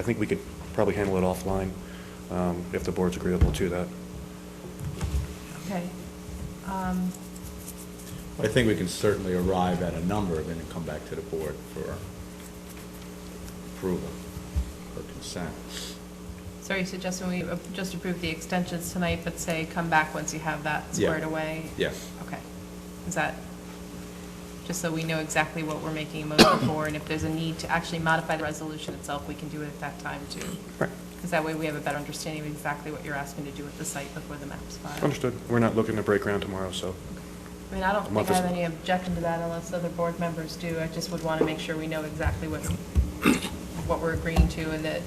I think we could probably handle it offline, um, if the board's agreeable to that. Okay. Um, I think we can certainly arrive at a number and then come back to the board for approval or consent. So are you suggesting we uh, just approve the extensions tonight, but say, come back once you have that squared Yeah. away? Yes. Okay. Is that, just so we know exactly what we're making a motion for, and if there's a need to actually modify the resolution itself, we can do it at that time too? Right. Because that way we have a better understanding of exactly what you're asking to do with the site before the map's filed. Understood. We're not looking to break ground tomorrow, so. I mean, I don't A month think I is- have any objection to that unless other board members do. I just would want to make sure we know exactly what, what we're agreeing to and that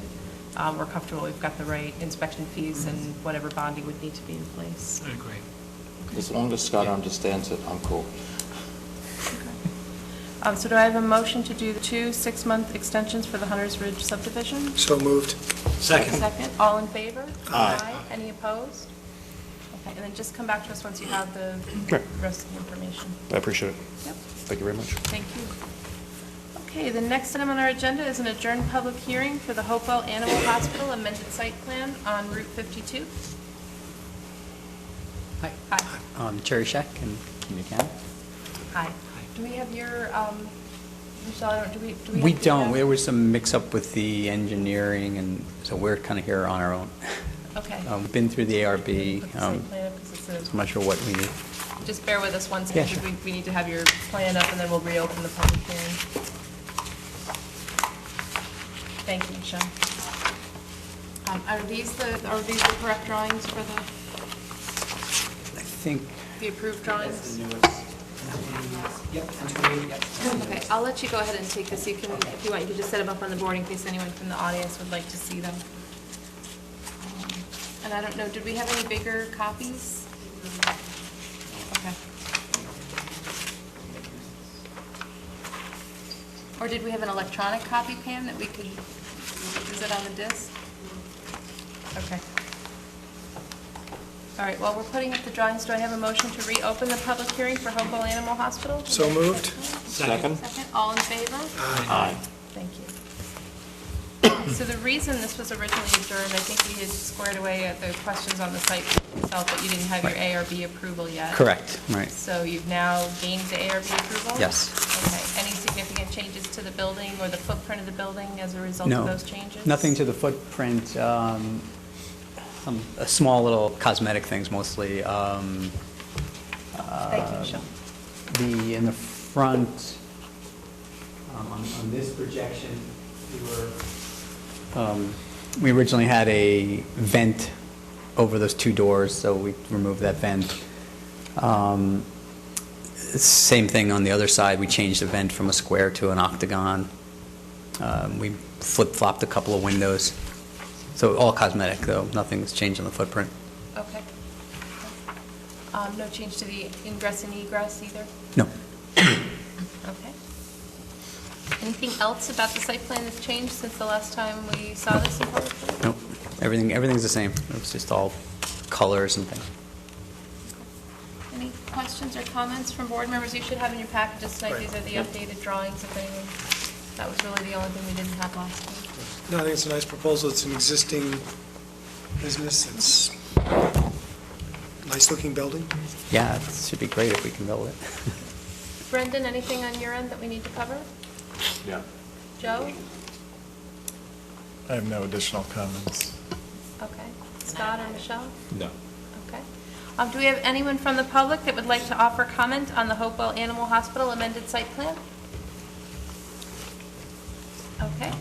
um, we're comfortable we've got the right inspection fees and whatever bonding would need to be in place. I agree. As long as Scott understands it, I'm cool. Um, So do I have a motion to do the two six-month extensions for the Hunters Ridge subdivision? So moved. Second. Second, all in favor? Aye. Any opposed? Okay, and then just come back to us once you have the Right. rest of the information. I appreciate it. Yep. Thank you very much. Thank you. Okay, the next item on our agenda is an adjourned public hearing for the Hopewell Animal Hospital amended site plan on Route 52. Hi, Hi. I'm Terry Scheck in Community County. Hi. Do we have your, um, Michelle, I don't, do we? have We your- don't, there was some mix-up with the engineering, and so we're kind of here on our own. Okay. Um, we've Been through the Put ARB, the site um, plan up 'cause it's a- so I'm not sure what we need. Just bear with us one Yeah, second. sure. We- We need to have your plan up, and then we'll reopen the public hearing. Thank you, Michelle. Um, Are these the, are these the correct drawings for the, I think, the approved drawings? yep, Okay, I'll let you go ahead and take this. You can, if you want, you can just set them up on the board in case anyone from the audience would like to see them. Um, And I don't know, did we have any bigger copies? Okay. Or did we have an electronic copy, Pam, that we could, is it on the disk? Okay. All right, well, we're putting up the drawings. Do I have a motion to reopen the public hearing for Hopewell Animal Hospital? So moved. Second? Second, all in favor? Aye. Thank you. So the reason this was originally adjourned, I think we had squared away at the questions on the site itself, but you didn't have your ARB approval yet. correct, right. So you've now gained the ARB approval? Yes. Okay. Any significant changes to the building or the footprint of the building as a result No, of those changes? Nothing to the footprint, um, some, uh, small little cosmetic things mostly. um, uh, Thank you, Michelle. the, in the front, um, on, on this projection, we were, um, we originally had a vent over those two doors, so we removed that vent. Um, Same thing on the other side, we changed the vent from a square to an octagon. Um, We flip-flopped a couple of windows. So all cosmetic, though, nothing's changed on the footprint. Okay. Um, No change to the ingress and egress either? No, Okay. Anything else about the site plan that's changed since the last time we saw this in public? no, everything, everything's the same. It was just all colors and things. Any questions or comments from board members? You should have in your packages tonight, Right. these are the updated drawings if anyone, that was really the only thing we didn't have last week. No, I think it's a nice proposal. It's an existing business. It's nice-looking building. Yeah, it should be great if we can build it. Brendan, anything on your end that we need to cover? Yeah. Joe? I have no additional comments. Okay. Scott or Michelle? No. Okay. Um, Do we have anyone from the public that would like to offer comment on the Hopewell Animal Hospital amended site plan? Okay.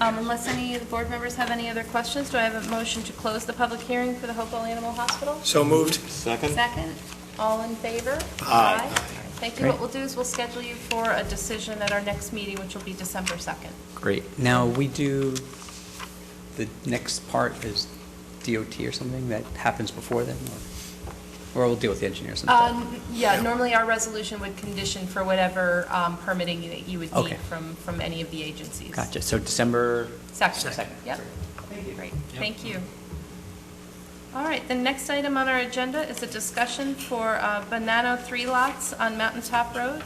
Um, Unless any of the board members have any other questions, do I have a motion to close the public hearing for the Hopewell Animal Hospital? So moved. Second? Second, all in favor? Aye. Thank you. What we'll do is we'll schedule you for a decision at our next meeting, which will be December 2nd. Great. Now, we do, the next part is DOT or something that happens before then? Or or we'll deal with the engineers sometime? Um, Yeah, normally our resolution would condition for whatever um, permitting that you would need Okay. from, from any of the agencies. Gotcha. So December? Second, Second. yep. Great, thank you. All right, the next item on our agenda is a discussion for uh, Banano Three Lots on Mountain Top Road.